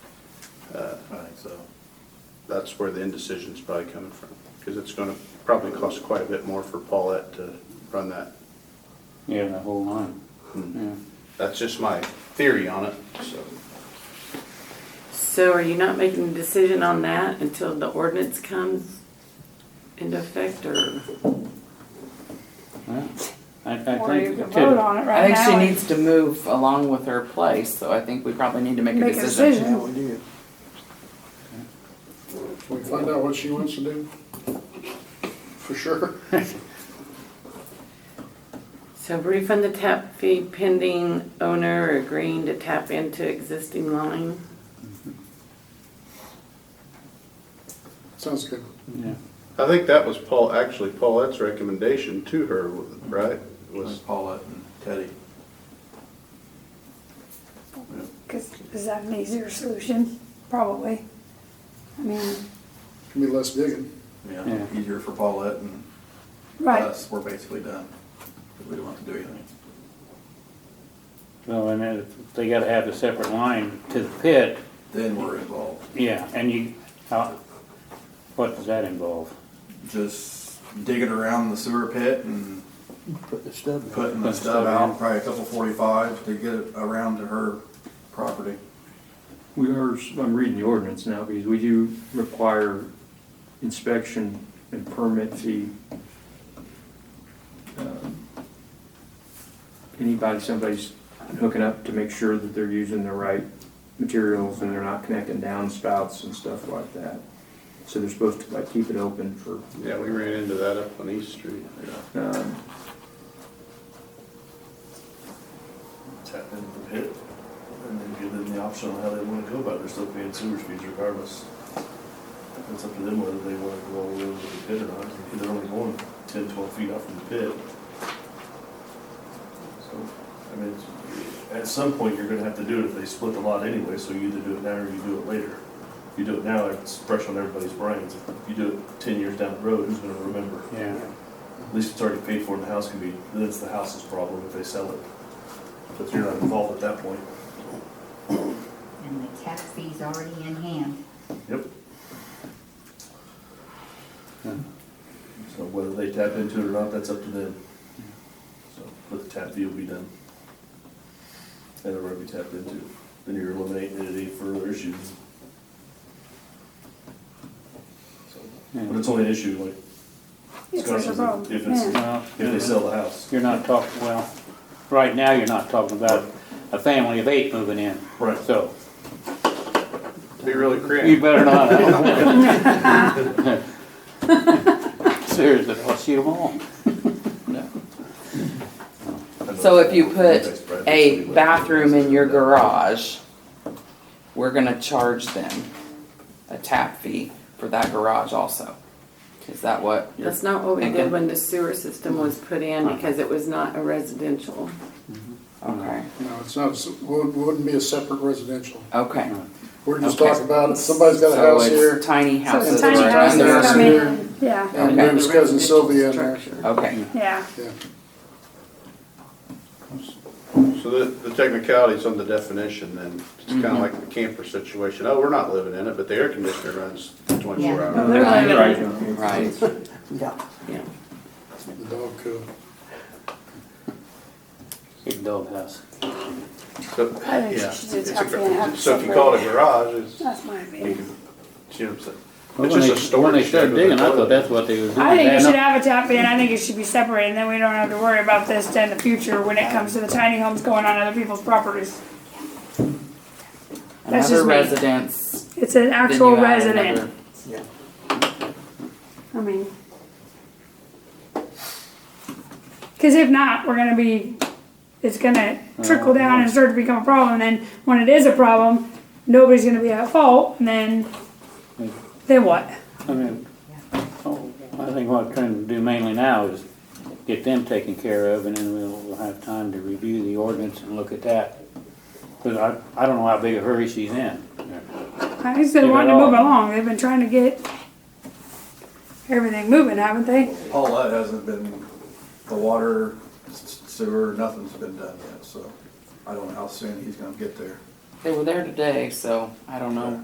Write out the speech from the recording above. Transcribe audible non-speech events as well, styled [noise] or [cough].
So that's where the indecision's probably coming from, because it's gonna probably cost quite a bit more for Paulette to run that. Yeah, the whole line. Hmm. Yeah. That's just my theory on it, so. So are you not making a decision on that until the ordinance comes into effect or? Well, I, I Or you think can it vote could, on it I right think now. she and needs to move along with her place, so I think we probably need to make a Make a decision. decision. Yeah, we do. Can we find out what she wants to do? For sure. So refund the tap fee pending owner agreeing to tap into existing line? Sounds good. yeah. I think that was Paul, actually Paulette's recommendation to her, right? was Was, Paulette and Teddy. Cause is that an easier solution? Probably. I mean, Can be less digging. Yeah, Yeah. easier for Paulette and right, us, we're basically done. 'cause We don't have to do anything. Well, and then if they gotta have a separate line to the pit, Then we're involved. yeah, and you, how, what does that involve? Just digging around the sewer pit and Put the stub in. putting the Put stub stuff out, in. probably a couple forty-five to get it around to her property. We are, I'm reading the ordinance now, because we do require inspection and permit fee. Um, Anybody, somebody's hooking up to make sure that they're using the right materials and they're not connecting downspouts and stuff like that. So they're supposed to like keep it open for, yeah, we ran into that up on East Street. um, Tap into the pit and then give them the option on how they wanna go about it. They're still paying sewer fees regardless. It's up to them whether they wanna go all the way over to the pit or not. They're only going ten, twelve feet off from the pit. So, I mean, it's- at some point, you're gonna have to do it if they split the lot anyway, so you either do it now or you do it later. If you do it now, it's fresh on everybody's brains. If you do it ten years down the road, who's gonna remember? Yeah, At least it's already paid for and the house can be, then it's the house's problem if they sell it. But you're not involved at that point. and the tax fee's already in hand. Yep. So whether they tap into it or not, that's up to them. So, but the tap fee will be done. And it'll already be tapped into, then you're eliminating any further issues. So, But it's only an issue like. if there's a Scott says problem, If it's, yeah. well, if they sell the house. you're not talking, well, right now, you're not talking about a family of eight moving in. Right. So, Be really you creative. better [laughs] not. I don't want it. Seriously, I'll shoot them all. So if you put a bathroom in your garage, we're gonna charge them a tap fee for that garage also. Is that what you're, That's not what we Okay. did when the sewer system was put in because it was not a residential. okay, No, it's not, it wouldn't be a separate residential. okay. We're just Okay. talking about, if somebody's got a So house it's here, Tiny So houses. the Houses tiny are houses under- come in, yeah, and Okay. there's cousin Sylvia uh, in there. Residential structure. Okay, yeah. Yeah. So the, the technicalities on the definition then, it's kind of like the camper situation. Oh, we're not living in it, but the air conditioner runs twenty-four Yeah. Well, hours. they're Right. like- right, right. Yeah. The dog coop. Big doghouse. So, I think yeah. she should it's a have gar- to have So if you call it a garage, it's, That's my you opinion. can, see what I'm saying? Well, It's when just a they- storage When they started shed with a digging, I thought toilet. that's what they was doing. I think you Adding should up- have a tap in, I think it should be separate, and then we don't have to worry about this then in the future when it comes to the tiny homes going on other people's properties. That's Another just me. residence. then It's an you actual add resident, another- I mean. Cause if not, we're gonna be, it's gonna Uh, trickle down and start to become a problem, and then when it is a problem, nobody's gonna be at fault, and then, Hmm. then what? I mean, oh, I think what I'm trying to do mainly now is get them taken care of, and then we'll, we'll have time to review the ordinance and look at that. Because I, I don't know how big a hurry she's in. [laughs] I guess they Get it wanted to all. move along, they've been trying to get everything moving, haven't they? Paulette hasn't been, the water, s- sewer, nothing's been done yet, so I don't know how soon he's gonna get there. They were there today, so I don't know.